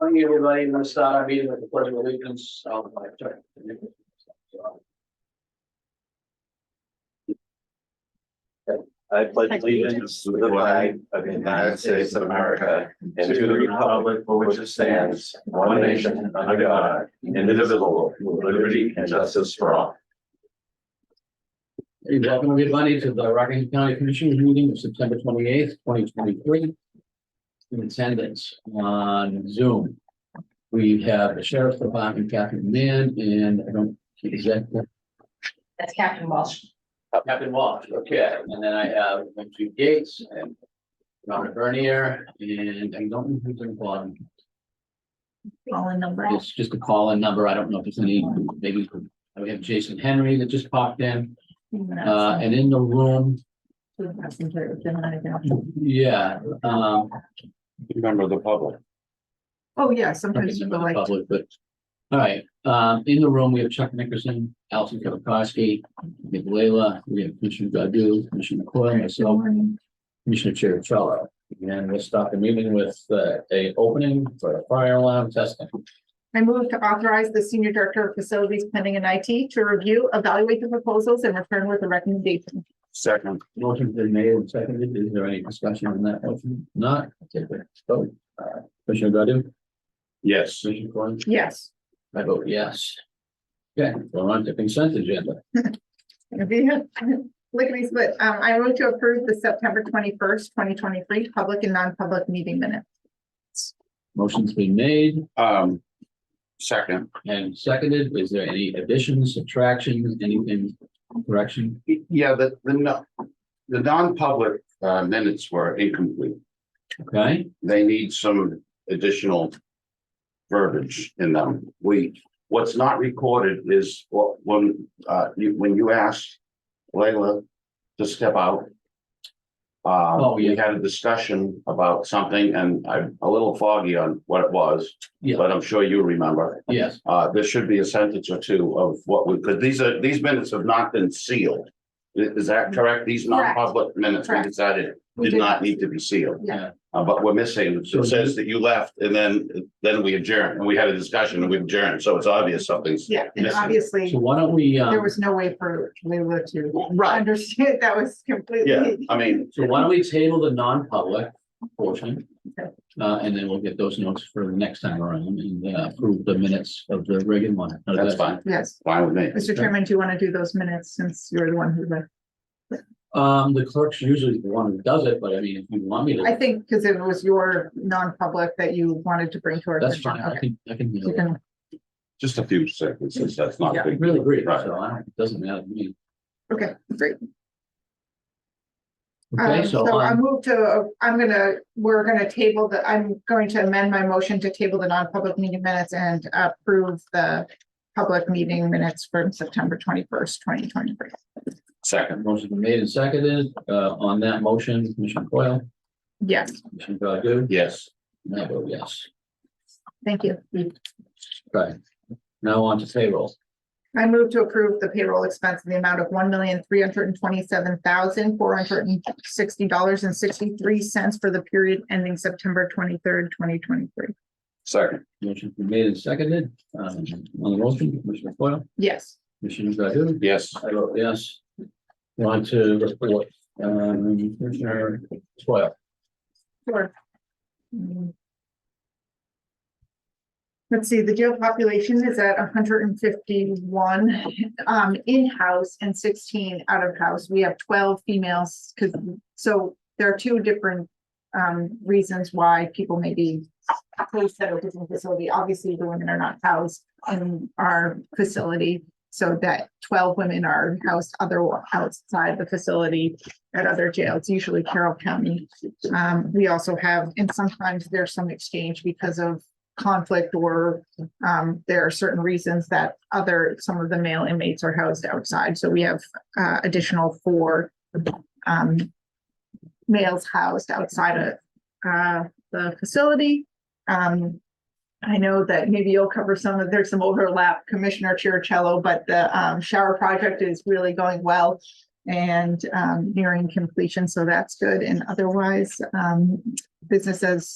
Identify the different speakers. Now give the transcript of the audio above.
Speaker 1: Thank you, everybody. We're gonna start our meeting with the pledge of allegiance. I'll, uh, check.
Speaker 2: I pledge allegiance to the flag of the United States of America and to the republic for which it stands, one nation, under God, indivisible, with liberty and justice for all.
Speaker 1: Hey, Welcome, everybody, to the Rockingham County Commissioners meeting of September twenty eighth, twenty twenty three. In attendance on Zoom. We have the Sheriff's Department, Captain Mann, and I don't, is that Uh,
Speaker 3: That's Captain Walsh.
Speaker 1: Captain Walsh, okay, and then I have Richie Gates and Robert Bernier, and I don't know who's in bottom.
Speaker 3: All in number.
Speaker 1: It's just a call in number, I don't know if there's any, maybe, we have Jason Henry that just popped in, uh, and in the room, yeah, um.
Speaker 2: Remember the public.
Speaker 3: Oh, yeah,
Speaker 1: I
Speaker 3: sometimes
Speaker 1: think
Speaker 3: people
Speaker 1: they're
Speaker 3: like,
Speaker 1: Public, but, all right, um, in the room, we have Chuck Nickerson, Allison Kevakowski, we have Leila, we have Commissioner Godu, Commissioner McCoy, myself, Commissioner Cherichello. And we'll start the meeting with, uh, a opening for a fire alarm testing.
Speaker 3: I move to authorize the senior director of facilities planning and IT to review, evaluate the proposals and return with a recommendation.
Speaker 2: Second.
Speaker 1: Motion's been made and seconded. Is there any discussion on that motion? Not, take the vote. Uh, Commissioner Godu?
Speaker 2: Yes.
Speaker 1: Commissioner Coyle?
Speaker 3: Yes,
Speaker 1: I vote yes. Okay, we're on to consent agenda.
Speaker 3: If you- lickety split. Um, I move to approve the September twenty-first, twenty twenty-three public and non-public meeting minutes.
Speaker 1: Motion's been made
Speaker 2: Um. Second.
Speaker 1: and seconded. Is there any additions, subtractions, anything, correction?
Speaker 2: Yeah, the, the, no- the non-public uh, minutes were incomplete.
Speaker 1: Okay,
Speaker 2: they need some additional verbiage in them. We, what's not recorded is what, when, uh, you, when you asked Layla to step out. Uh,
Speaker 1: Oh, yeah.
Speaker 2: we had a discussion about something and I'm a little foggy on what it was,
Speaker 1: Yeah.
Speaker 2: but I'm sure you remember.
Speaker 1: yes,
Speaker 2: Uh, there should be a sentence or two of what we, because these are, these minutes have not been sealed. I- Is, that correct? These non-public minutes we
Speaker 3: Mm-hmm. Correct.
Speaker 2: decided
Speaker 3: We
Speaker 2: did
Speaker 3: did.
Speaker 2: not need to be sealed.
Speaker 3: Yeah,
Speaker 2: Uh, but we're missing, it says that you left and then, then we adjourned, and we had a discussion and we adjourned, so it's obvious something's.
Speaker 3: yeah, and
Speaker 2: Missing.
Speaker 3: obviously,
Speaker 1: so why don't we,
Speaker 3: there
Speaker 1: um,
Speaker 3: was no way for Leila to
Speaker 2: Right,
Speaker 3: understand, that was
Speaker 2: yeah,
Speaker 3: completely.
Speaker 2: I mean,
Speaker 1: so why don't we table the non-public portion?
Speaker 3: Okay.
Speaker 1: Uh, and then we'll get those notes for the next time around and uh, approve the minutes of the regular one. How does
Speaker 2: that's
Speaker 1: that-
Speaker 2: fine,
Speaker 3: Yes,
Speaker 2: fine with me.
Speaker 3: Mr. Chairman, do you want to do those minutes since you're the one who left?
Speaker 1: Um, the clerk's usually the one who does it, but I mean, if you want me
Speaker 3: I
Speaker 1: to,
Speaker 3: think because it was your non-public that you wanted to bring to our
Speaker 1: that's
Speaker 3: attention.
Speaker 1: fine, I
Speaker 3: Okay.
Speaker 1: can, I can.
Speaker 3: You
Speaker 1: handle it.
Speaker 3: can-
Speaker 2: Just a few sentences, that's not
Speaker 1: Yeah,
Speaker 2: a
Speaker 1: I
Speaker 2: big.
Speaker 1: really agree,
Speaker 2: Right.
Speaker 1: so I don't, it doesn't matter to me.
Speaker 3: Okay, great. Um,
Speaker 1: Okay, so,
Speaker 3: So I
Speaker 1: um,
Speaker 3: move to, I'm gonna, we're gonna table the, I'm going to amend my motion to table the non-public meeting minutes and approve the public meeting minutes from September twenty-first, twenty twenty-three.
Speaker 2: Second,
Speaker 1: motion's been made and seconded, uh, on that motion, Commissioner Coyle,
Speaker 3: Yes,
Speaker 1: Commissioner Godu,
Speaker 2: yes,
Speaker 1: and I vote yes.
Speaker 3: thank you.
Speaker 1: Okay, now on to payroll,
Speaker 3: I move to approve the payroll expense in the amount of one million, three hundred and twenty-seven thousand, four hundred and sixty dollars and sixty-three cents for the period ending September twenty-third, twenty twenty-three.
Speaker 2: second,
Speaker 1: motion's been made and seconded, um, on the motion, Commissioner Coyle,
Speaker 3: Yes,
Speaker 1: Commissioner Godu,
Speaker 2: yes,
Speaker 1: I vote yes. On to report, um, Commissioner Coyle,
Speaker 3: sure. Mm. Let's see, the jail population is at hundred and fifty-one, um, in-house and sixteen out-of-house. We have twelve females, because, so there are two different um, reasons why people may be placed at a different facility. Obviously, the women are not housed in our facility. So that twelve women are housed other, outside the facility at other jails, usually Carroll County. Um, we also have, and sometimes there's some exchange because of conflict or um, there are certain reasons that other, some of the male inmates are housed outside. So we have uh, additional four um, males housed outside of uh the facility. Um, I know that maybe you'll cover some of, there's some overlap, Commissioner Chiricello, but the um shower project is really going well. And um nearing completion, so that's good. And otherwise, um business as